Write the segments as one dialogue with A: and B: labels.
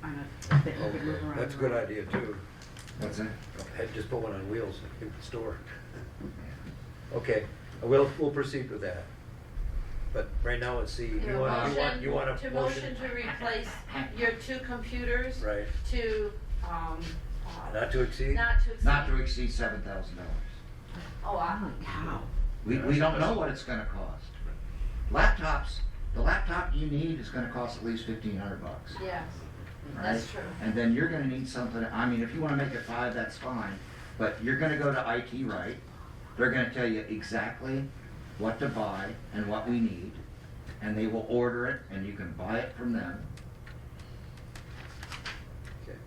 A: kind of, that you could move around.
B: That's a Oh, good idea too.
C: What's that?
B: I'd Just put one on wheels in the store. Okay, we'll, we'll proceed with that. But right now, let's see,
D: Your
B: you want, you want, you want
D: motion-
B: a
D: To
B: motion?
D: motion to replace your two computers.
B: Right,
D: To, um, uh,
B: not to exceed?
D: not to exceed.
C: Not to exceed seven thousand dollars.
D: Oh, I,
A: Holy cow.
C: We, we don't know what it's gonna cost. Laptops, the laptop you need is gonna cost at least fifteen hundred bucks.
D: yes,
C: right?
D: that's true.
C: And then you're gonna need something, I mean, if you wanna make it five, that's fine, but you're gonna go to IT right. They're gonna tell you exactly what to buy and what we need, and they will order it, and you can buy it from them.
B: Okay.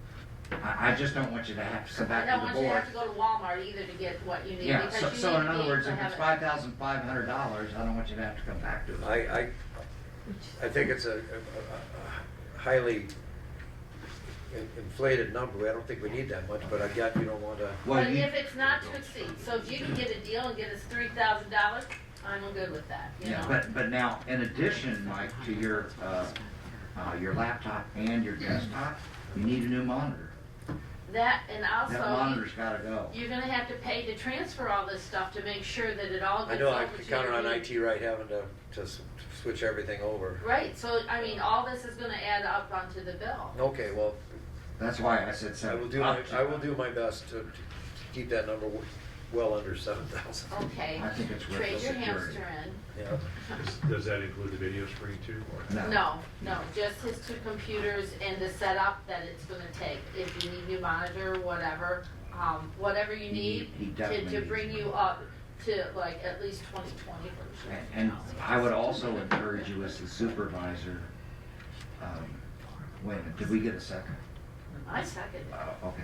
C: I, I just don't want you to have to come
D: I
C: back
D: don't
C: to
D: want
C: the
D: you to
C: board.
D: have to go to Walmart either to get what you need,
C: Yeah,
D: because you
C: so, so
D: need
C: in
D: to be
C: other words,
D: to
C: if it's
D: have it.
C: five thousand five hundred dollars, I don't want you to have to come back to it.
B: I, I, I think it's a, a- a- a highly in- inflated number, I don't think we need that much, but I got, you don't want to,
C: Well,
D: But
C: you-
D: if it's not to exceed, so if you can get a deal and get us three thousand dollars, I'm good with that, you
C: Yeah,
D: know?
C: but, but now, in addition, Mike, to your, uh, uh, your laptop and your desktop, you need a new monitor.
D: That, and also.
C: That
D: you-
C: monitor's gotta go.
D: You're gonna have to pay to transfer all this stuff to make sure that it all
B: I
D: gets
B: know
D: over to
B: I
D: your.
B: could count on
D: new-
B: IT right having to, to s- switch everything over.
D: Right, so, I mean, all this is gonna add up onto the bill.
B: Okay, well,
C: That's why I said
B: I
C: seven.
B: will do my,
C: up to-
B: I will do my best to, to keep that number w- well under seven thousand,
E: Oh.
D: Okay,
C: I think it's worth the
D: trade your
C: security.
D: hamster in.
B: yeah.
F: Does- Does that include the video screen too? or-
D: No, no, just his two computers and the setup that it's gonna take. If you need new monitor, whatever, um, whatever you
C: He-
D: need
C: he
D: to,
C: definitely
D: to
C: needs
D: bring
C: it.
D: you up to like at least twenty twenty version.
C: And and I would also encourage you as the supervisor, um, wait a minute, did we get a second?
D: I second it.
C: Uh, okay.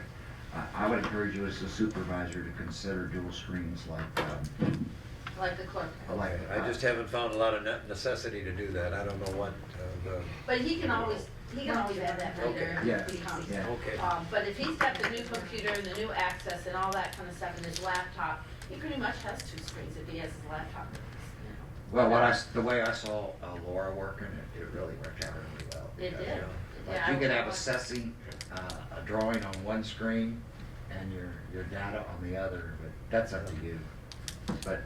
C: I, I would encourage you as the supervisor to consider dual screens like, um,
D: like the clerk.
C: like. uh,
B: I just haven't found a lot of ne- necessity to do that, I don't know what, uh, the,
D: But he can always, he can always add that later.
C: Okay.
D: if he comes.
C: Yeah.
B: okay.
D: Um, but if he's got the new computer and the new access and all that kind of stuff and his laptop, he pretty much has two screens if he has his laptop. you
C: Well, what I, s- the way I saw uh, Laura working, it, it really worked out really well.
D: It
C: because,
D: did.
C: you know,
D: know.
C: Like
D: Yeah,
C: you
D: I
C: could
D: would-
C: have assessing, uh, a drawing on one screen and your, your data on the other, but that's up to you. But,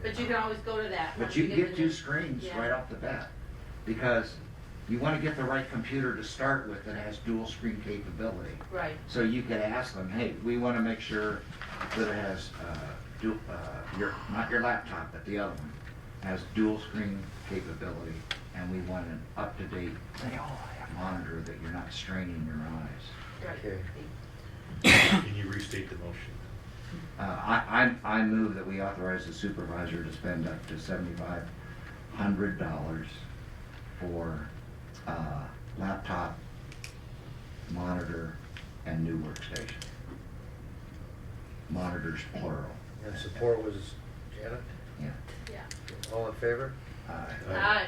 D: But you can always go to that.
C: but
D: once
C: you can
D: the
C: get
D: new-
C: two screens
D: Yeah.
C: right off the bat, because you wanna get the right computer to start with that has dual screen capability.
D: Right,
C: So you could ask them, hey, we wanna make sure that it has, uh, du- uh, your, not your laptop, but the other one, has dual screen capability, and we want an up-to-date monitor that you're not straining your eyes.
D: right.
B: Okay.
F: Can you restate the motion?
C: Uh, I, I, I move that we authorize the supervisor to spend up to seventy-five hundred dollars for, uh, laptop, monitor, and new workstation. Monitors plural,
B: And support was Janet,
C: yeah. Uh,
D: Yeah.
B: all in favor?
C: Aye.
D: Hi.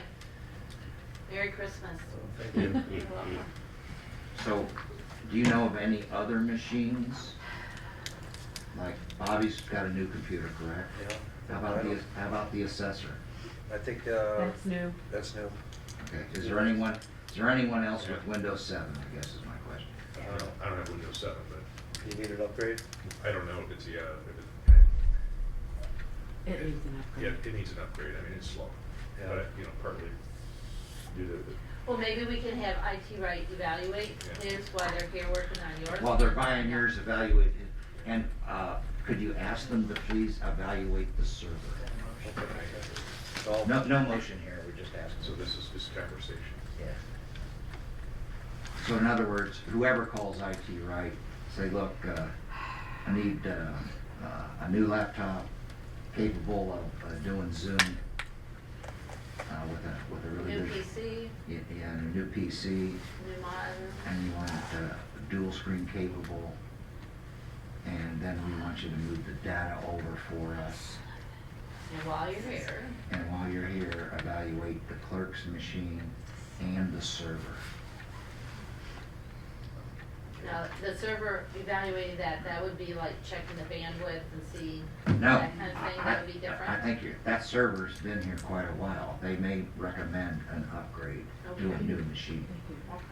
D: Merry Christmas.
B: Thank you.
D: You're welcome.
C: So, do you know of any other machines? Like Bobby's got a new computer, correct?
B: Yeah.
C: How about the, how about the assessor?
B: I think, uh,
E: That's new.
B: that's new.
C: Okay, is there anyone, is there anyone else with Windows seven, I guess is my question?
F: I don't know- I don't have Windows 7, but
B: You need an upgrade?
F: I don't know if it's, yeah, if it,
E: It needs an
F: yeah,
E: upgrade.
F: it needs an upgrade. I mean, it's slow.
B: Yeah.
F: But, you know, partly due to the
D: Well, maybe we can have IT Right evaluate
F: Yeah.
D: his while they're here working on yours.
C: While they're buying yours, evaluate it, and, uh, could you ask them to please evaluate the server?
B: All-
C: No, no motion here, we're just asking.
F: So this is just conversation.
C: Yeah. So in other words, whoever calls IT, right, say, look, uh, I need, uh, uh, a new laptop capable of uh, doing Zoom, uh, with a, with a really
D: New
C: good.
D: PC,
C: Yeah, yeah, and a new PC,
D: new monitor.
C: and you want it, uh, dual screen capable. And then we want you to move the data over for us,
D: And while you're here,
C: and while you're here, evaluate the clerk's machine and the server.
D: now, the server evaluating that, that would be like checking the bandwidth and see
C: No.
D: that kind of thing, that would be
C: I- I-
D: different?
C: I think your- that server's been here quite a while. They may recommend an upgrade to a
D: Okay.
C: new machine.
E: Thank you.
D: Okay.